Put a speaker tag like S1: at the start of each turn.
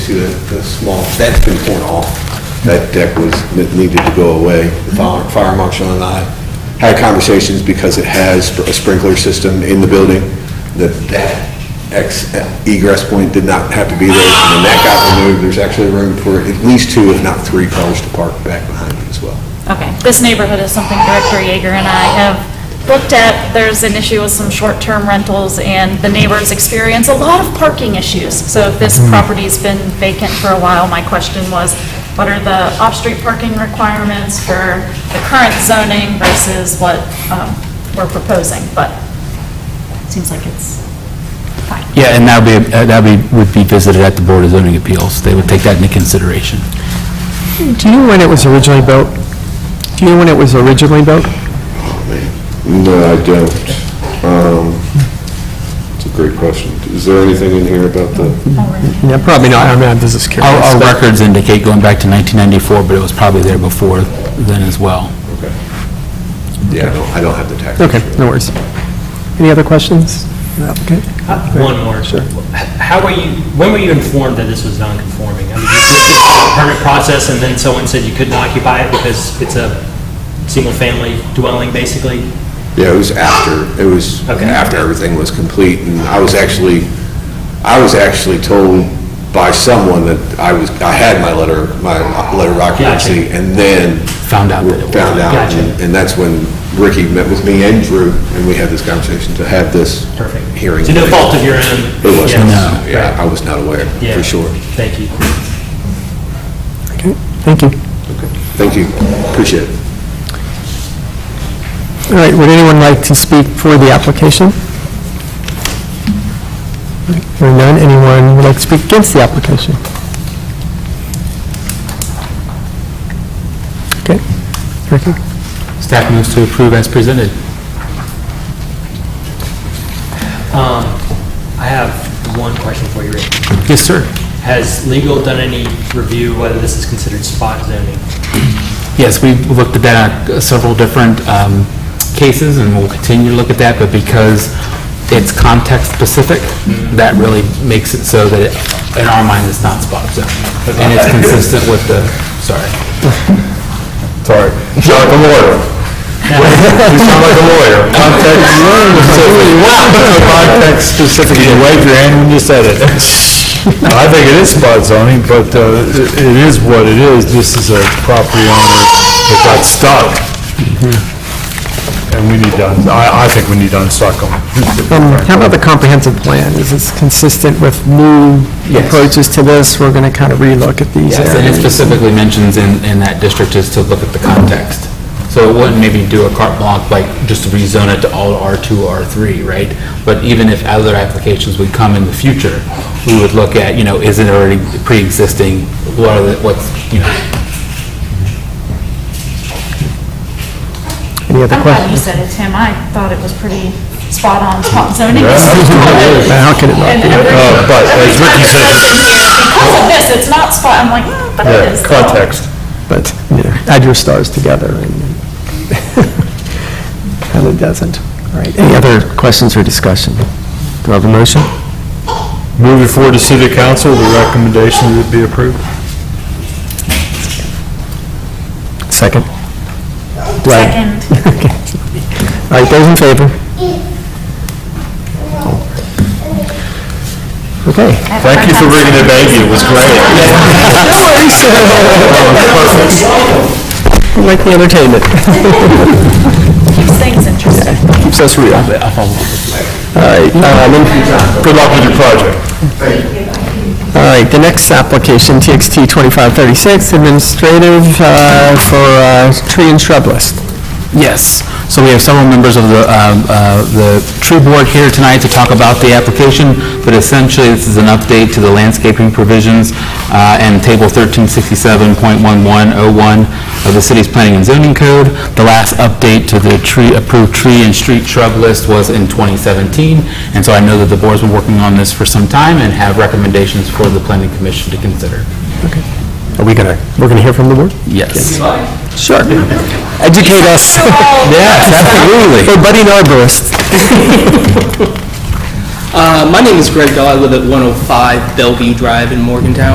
S1: to the the small, that's been torn off. That deck was, that needed to go away. The fire fire marshal and I had conversations because it has a sprinkler system in the building, that that ex- egress point did not have to be there. When that got removed, there's actually room for at least two, if not three cars to park back behind it as well.
S2: Okay, this neighborhood is something Director Yeager and I have looked at. There's an issue with some short-term rentals, and the neighbors experience a lot of parking issues. So if this property's been vacant for a while, my question was, what are the off-street parking requirements for the current zoning versus what um, we're proposing? But it seems like it's fine.
S3: Yeah, and that would be, uh, that would be- would be visited at the Board of Zoning Appeals. They would take that into consideration.
S4: Do you know when it was originally built? Do you know when it was originally built?
S5: No, I don't. Um, It's a great question. Is there anything in here about the,
S4: Yeah, probably not, I mean, I'm just curious.
S3: Our our
S4: but-
S3: records indicate going back to 1994, but it was probably there before then as well.
S1: Yeah, I don't, I don't have the tax.
S4: Okay, no worries. Any other questions? Okay.
S6: One more.
S4: Sure.
S6: How were you, when were you informed that this was non-conforming? I mean, you did the permit process, and then someone said you couldn't occupy it because it's a single-family dwelling, basically?
S1: Yeah, it was after, it was
S6: Okay.
S1: after everything was complete, and I was actually, I was actually told by someone that I was, I had my letter, my letter of occupancy,
S6: Gotcha.
S1: and then...
S3: Found out that it was.
S1: Found out,
S6: Gotcha.
S1: and- and that's when Ricky met with me and Drew, and we had this conversation to have this
S6: Perfect.
S1: hearing.
S6: To no fault of your own?
S1: It wasn't,
S3: No.
S1: yeah, I was not aware,
S6: Yeah.
S1: for sure.
S6: Thank you.
S4: Okay, thank you.
S1: Thank you, appreciate it.
S4: All right, would anyone like to speak for the application? Hearing none, anyone would like to speak against the application? Okay, Ricky?
S3: Staff moves to approve as presented.
S6: Um, I have one question for you, Rick.
S3: Yes, sir.
S6: Has legal done any review whether this is considered spot zoning?
S3: Yes, we looked at that, uh, several different um, cases, and we'll continue to look at that, but because it's context-specific, that really makes it so that, it- in our mind, it's not spot zoning. And it's consistent with the, sorry.
S5: sorry, you sound like a lawyer. You sound like a lawyer. Context, context specific, you waved your hand when you said it. I think it is spot zoning, but uh, it it is what it is. This is a property owner that got stuck. And we need to, un- I, I think we need to unstuck them.
S4: Um, How about the comprehensive plan? Is this consistent with new
S3: Yes.
S4: approaches to this? We're going to kind of relook at these
S3: Yes, and it
S4: areas.
S3: specifically mentions in, in that district is to look at the context. So it wouldn't maybe do a carte blanche, like just rezone it to all R2, R3, right? But even if other applications would come in the future, we would look at, you know, is it already pre-existing? What are the, what's, you know,
S4: Any other
S2: I'm glad you
S4: questions?
S2: said it, Tim. I thought it was pretty spot on, spot zoning.
S4: How could it not
S2: And
S4: be?
S2: every-
S5: Uh, but as
S2: every
S5: Ricky
S2: time I've
S5: said-
S2: been here, Because of this, it's not spot, I'm like, "Mm, but it is. though."
S5: Context.
S4: But, you know, add your stars together and kind of doesn't. All right, any other questions or discussion? Do I have a motion?
S5: Move it forward to city council, the recommendation would be approved.
S4: Second? Do I-
S2: Second.
S4: All right, those in favor? Okay.
S5: Thank you for bringing the baby, it was great.
S4: Like the entertainment.
S2: Keeps things interesting.
S4: Keeps us real. All right, um, and-
S5: Good luck with your project.
S4: all right, the next application, TXT 2536, administrative uh, for uh, tree and shrub list.
S3: Yes, so we have several members of the, um, uh, the tree board here tonight to talk about the application, but essentially, this is an update to the landscaping provisions uh, and Table 1367.1101 of the city's planning and zoning code. The last update to the tree, approved tree and street shrub list was in 2017, and so I know that the board's been working on this for some time and have recommendations for the planning commission to consider.
S4: Are we gonna, we're gonna hear from the board?
S3: Yes.
S4: Sure. Educate us.
S3: Yes, absolutely.
S4: Hey, budding arborist.
S7: Uh, My name is Greg Dahl. I live at 105 Bellevue Drive in Morgantown.